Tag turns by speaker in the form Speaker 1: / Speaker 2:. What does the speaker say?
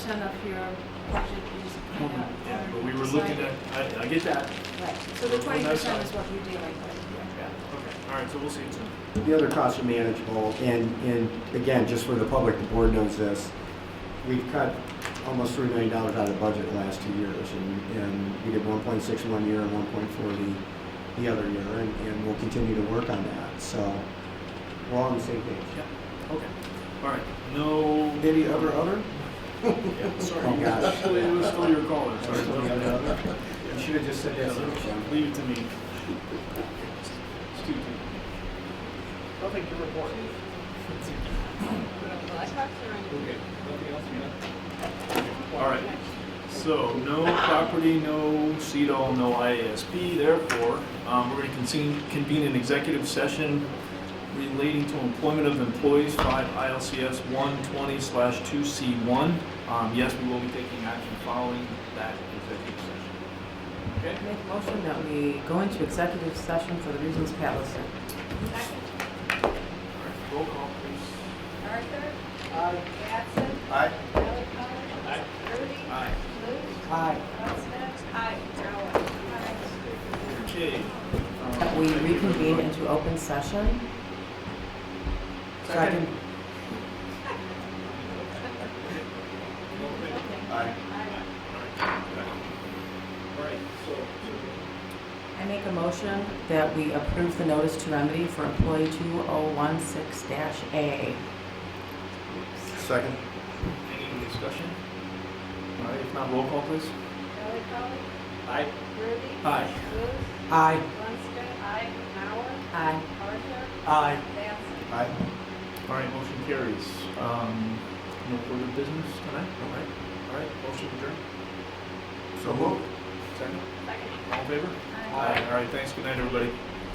Speaker 1: percent of your budget is kind of.
Speaker 2: Yeah, but we were looking at, I, I get that.
Speaker 1: Right, so the
Speaker 2: Well,
Speaker 1: twenty
Speaker 2: that's
Speaker 1: percent
Speaker 2: fine.
Speaker 1: is what you're dealing with.
Speaker 2: Yeah, okay, all right, so we'll see it soon.
Speaker 3: The other costs are manageable, and, and again, just for the public, the board knows this, we've cut almost three million dollars out of the budget the last two years, and, and we did one point six one year and one point four the, the other year, and, and we'll continue to work on that, so we're all on the same page.
Speaker 2: Yeah, okay, all right, no.
Speaker 3: Any other, other?
Speaker 2: Yeah, sorry,
Speaker 3: Oh,
Speaker 2: you-
Speaker 3: gosh.
Speaker 2: actually, it was still your caller, sorry. Yeah,
Speaker 3: You should have just said yes.
Speaker 2: Leave it to me. It's too
Speaker 4: Nothing to report. Okay, nothing else, yeah?
Speaker 2: All right, so no property, no CEDOL, no IASB, therefore, um, we're gonna convene, convene an executive session relating to employment of employees, five ILCS one twenty slash two C one. Um, yes, we will be taking action following that executive session.
Speaker 5: I Make a motion that we go into executive session for the reasons Pat listed.
Speaker 2: All right, roll call, please.
Speaker 6: Arthur? Batson?
Speaker 3: Aye.
Speaker 6: Ellie
Speaker 2: Aye.
Speaker 6: Rudy?
Speaker 2: Aye.
Speaker 6: Luce?
Speaker 5: Aye.
Speaker 6: Elspeth? Aye. Howard?
Speaker 2: Okay. um,
Speaker 5: That we reconvene into open session. So I can,
Speaker 3: Aye.
Speaker 2: All right, so, so-
Speaker 5: I make a motion that we approve the notice to remedy for employee 2016-A.
Speaker 3: Second?
Speaker 2: any discussion? All right, if not, roll call, please.
Speaker 6: Ellie
Speaker 2: Aye.
Speaker 6: Rudy?
Speaker 2: Aye.
Speaker 6: Luce?
Speaker 5: Aye.
Speaker 6: Lundstedt? Aye. Howard?
Speaker 5: Aye.
Speaker 6: Arthur?
Speaker 3: Aye.
Speaker 6: Batson?
Speaker 3: Aye.
Speaker 2: All right, motion carries. Um, no further business tonight, all right? All right, motion adjourned.
Speaker 3: So moved.
Speaker 2: Second,
Speaker 6: Second.
Speaker 2: all in favor?
Speaker 6: Aye.
Speaker 2: All right, thanks, good night, everybody.